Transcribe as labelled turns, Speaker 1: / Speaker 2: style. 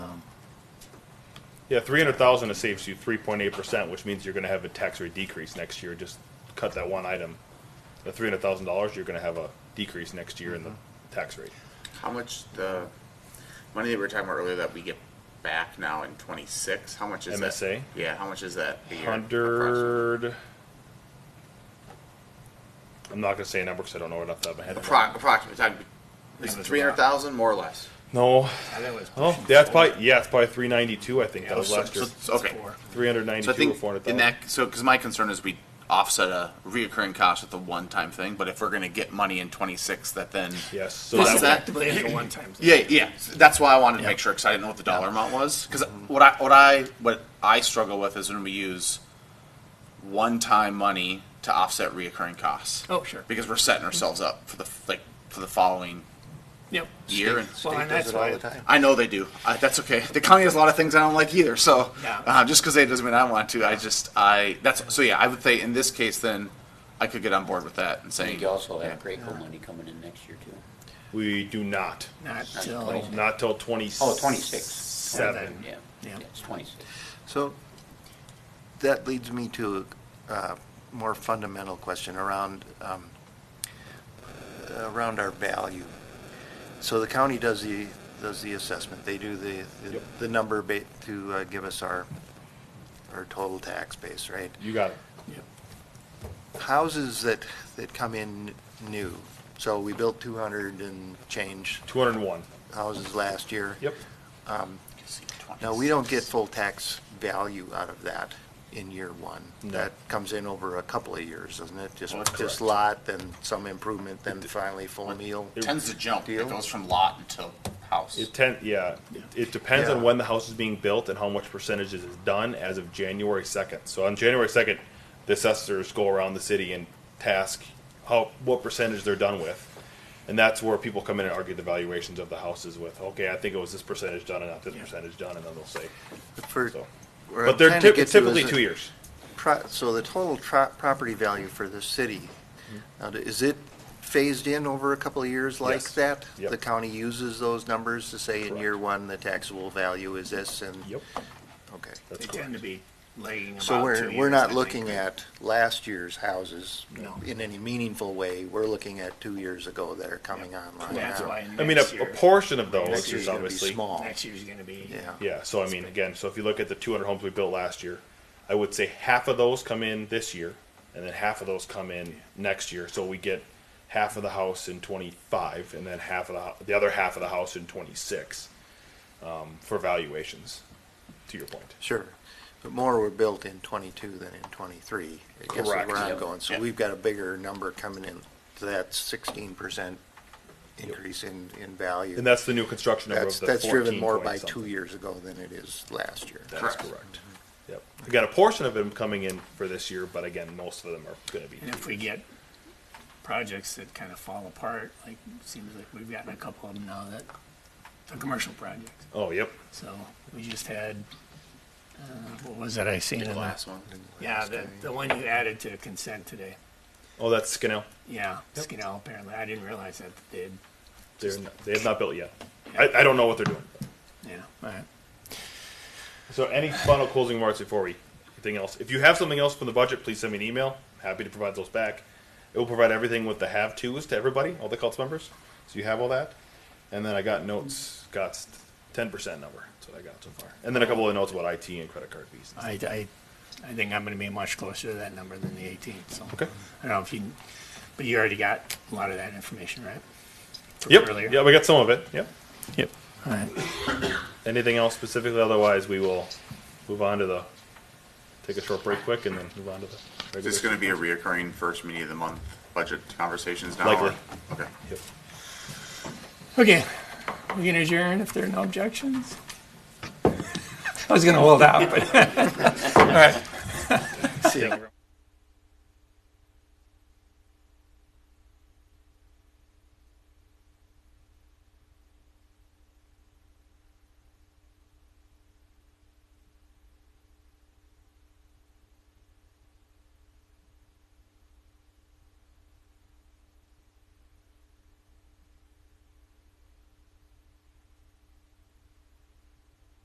Speaker 1: Yeah, three hundred thousand, it saves you three point eight percent, which means you're gonna have a tax rate decrease next year, just cut that one item. The three hundred thousand dollars, you're gonna have a decrease next year in the tax rate.
Speaker 2: How much the money that we were talking about earlier that we get back now in twenty six? How much is
Speaker 1: MSA?
Speaker 2: that? Yeah, how much is that? a year?
Speaker 1: Hundred. I'm not gonna say a number, cause I don't know it off the top of my head.
Speaker 2: Appro- approximately talking. Is
Speaker 3: That
Speaker 2: it
Speaker 3: was
Speaker 2: three hundred thousand more or less?
Speaker 1: No,
Speaker 3: I think it was
Speaker 1: oh,
Speaker 3: pushing
Speaker 1: that's
Speaker 3: four.
Speaker 1: probably, yeah, it's probably three ninety-two, I think, that
Speaker 3: Yeah,
Speaker 1: was
Speaker 3: so-
Speaker 1: last year,
Speaker 3: so- so it's
Speaker 2: Okay.
Speaker 3: four.
Speaker 1: three hundred
Speaker 2: So I
Speaker 1: ninety-two or
Speaker 2: think
Speaker 1: four hundred
Speaker 2: in
Speaker 1: thousand.
Speaker 2: that, so, because my concern is we offset a reoccurring cost with a one-time thing, but if we're gonna get money in twenty-six, that then.
Speaker 1: Yes, so
Speaker 2: This
Speaker 1: that
Speaker 2: is
Speaker 1: would-
Speaker 2: that-
Speaker 3: Effectively, it's a one-time thing.
Speaker 2: Yeah, yeah, that's why I wanted to
Speaker 3: Yeah.
Speaker 2: make sure, because I didn't know what the dollar amount was, because what I, what I, what I struggle with is when we use one-time money to offset reoccurring costs.
Speaker 3: Oh, sure.
Speaker 2: Because we're setting ourselves up for the, like, for the following
Speaker 3: Yep.
Speaker 2: year, and
Speaker 3: Well, and that's why,
Speaker 2: I know they do. I, that's okay. The county has a lot of things I don't like either. So
Speaker 3: Yeah.
Speaker 2: uh, just because they doesn't mean I want to. I just I that's so yeah. I would say in this case then I could get on board with that and
Speaker 4: I
Speaker 2: say
Speaker 4: think you also have
Speaker 2: yeah.
Speaker 4: Graco money coming in next year too.
Speaker 1: We do not,
Speaker 3: not
Speaker 4: Not
Speaker 3: till,
Speaker 4: twice.
Speaker 1: not till twenty.
Speaker 4: Oh, 26.
Speaker 1: Seven.
Speaker 4: Yeah,
Speaker 3: Yeah.
Speaker 4: it's twenty-six.
Speaker 5: So that leads me to a uh, more fundamental question around, um, around our value. So the county does the, does the assessment. They do the, the-
Speaker 1: Yep.
Speaker 5: the number ba- to uh, give us our, our total tax base, right?
Speaker 1: You got it.
Speaker 5: Houses that, that come in new, so we built 200 and change
Speaker 1: Two hundred and one.
Speaker 5: houses last year.
Speaker 1: Yep.
Speaker 5: Now, we don't get full tax value out of that in year one.
Speaker 1: No. Oh,
Speaker 5: That comes in over a couple of years, doesn't it? Just,
Speaker 1: That's correct.
Speaker 5: just lot, then some improvement, then finally full meal.
Speaker 2: It tends to jump.
Speaker 5: Deal?
Speaker 2: It goes from lot until house.
Speaker 1: It ten, yeah, it depends on
Speaker 5: Yeah.
Speaker 1: when the house is being built and how much percentage is done as of January second. So on January second, the assessors go around the city and task how, what percentage they're done with. And that's where people come in and argue the valuations of the houses with, okay, I think it was this percentage done and not this percentage done, and then they'll say,
Speaker 5: For-
Speaker 1: so.
Speaker 5: where I'm
Speaker 1: But they're
Speaker 5: trying to
Speaker 1: typ-
Speaker 5: get
Speaker 1: it's
Speaker 5: to is
Speaker 1: typically
Speaker 5: that
Speaker 1: two years.
Speaker 5: pro- So the total tro- property value for the city, now, is it phased in over a couple of years like
Speaker 1: Mm-hmm. Yes.
Speaker 5: that?
Speaker 1: Yep.
Speaker 5: The county uses those numbers to say in
Speaker 1: Correct.
Speaker 5: year one, the taxable value is this and?
Speaker 1: Yep,
Speaker 5: Okay.
Speaker 1: that's
Speaker 3: they tend
Speaker 1: correct.
Speaker 3: to be lagging about two
Speaker 5: So we're, we're
Speaker 3: years, I
Speaker 5: not
Speaker 3: think,
Speaker 5: looking
Speaker 3: right?
Speaker 5: at last year's houses
Speaker 3: No.
Speaker 5: in any meaningful way. We're looking at two years ago that are coming online
Speaker 3: That's
Speaker 5: now.
Speaker 3: why
Speaker 1: I mean, a,
Speaker 3: next
Speaker 1: a
Speaker 3: year,
Speaker 1: portion of
Speaker 5: Next
Speaker 1: those
Speaker 5: year's
Speaker 1: is
Speaker 5: gonna be
Speaker 1: obviously.
Speaker 5: small.
Speaker 3: next year's gonna be.
Speaker 5: Yeah.
Speaker 1: Yeah, so I mean, again, so if you look at the two hundred homes we built last year, I would say half of those come in this year, and then half of those come in next year, so we get half of the house in twenty-five, and then half of the, hou- the other half of the house in twenty-six, um, for valuations, to your point.
Speaker 5: Sure. But more were built in twenty-two than in twenty-three. I guess is
Speaker 1: Correct.
Speaker 5: where I'm
Speaker 4: Yep.
Speaker 5: going. So
Speaker 2: Yep.
Speaker 5: we've got a bigger number coming in. So that's sixteen percent increase in, in value.
Speaker 1: And that's the new construction number
Speaker 5: That's,
Speaker 1: of the
Speaker 5: that's driven more
Speaker 1: 14
Speaker 5: by
Speaker 1: point
Speaker 5: two
Speaker 1: something.
Speaker 5: years Mm-hmm. ago than it is last year.
Speaker 1: That's correct. Yep. We got a portion of them coming in for this year, but again, most of them are gonna be.
Speaker 3: And if we get projects that kind of fall apart, like, seems like we've gotten a couple of them now that, the commercial projects.
Speaker 1: Oh, yep.
Speaker 3: So we just had, uh, what was that I seen in
Speaker 2: the
Speaker 3: the?
Speaker 2: last one.
Speaker 3: Yeah, the, the one you added to consent today.
Speaker 1: Oh, that's Skinnell.
Speaker 3: Yeah, Skinell apparently. I didn't realize that they did.
Speaker 1: They're, n- they have not built yet. I, I don't know what they're doing.
Speaker 3: Yeah, all right.
Speaker 1: So any final closing remarks before we, anything else? If you have something else from the budget, please send me an email. Happy to provide those back. It will provide everything with the have tos to everybody, all the cult members. So you have all that. And then I got notes, got ten percent number. That's what I got so far. And then a couple of notes about IT and credit card fees.
Speaker 3: I, I, I think I'm gonna be much closer to that number than the eighteen, so.
Speaker 1: Okay.
Speaker 3: I don't know if you, but you already got a lot of that information, right? From earlier?
Speaker 1: Yep, yeah, we got some of it. Yep.
Speaker 3: Yep. All right.
Speaker 1: Anything else specifically? Otherwise, we will move on to the, take a short break quick and then move on to the.
Speaker 2: Is this
Speaker 1: regular-
Speaker 2: going to be a reoccurring first meeting of the month budget conversations now?
Speaker 1: Likely.
Speaker 2: or- Okay.
Speaker 1: Yep.
Speaker 3: Okay, we can adjourn if there are no objections? I was gonna hold out, but, all right.
Speaker 1: Yeah.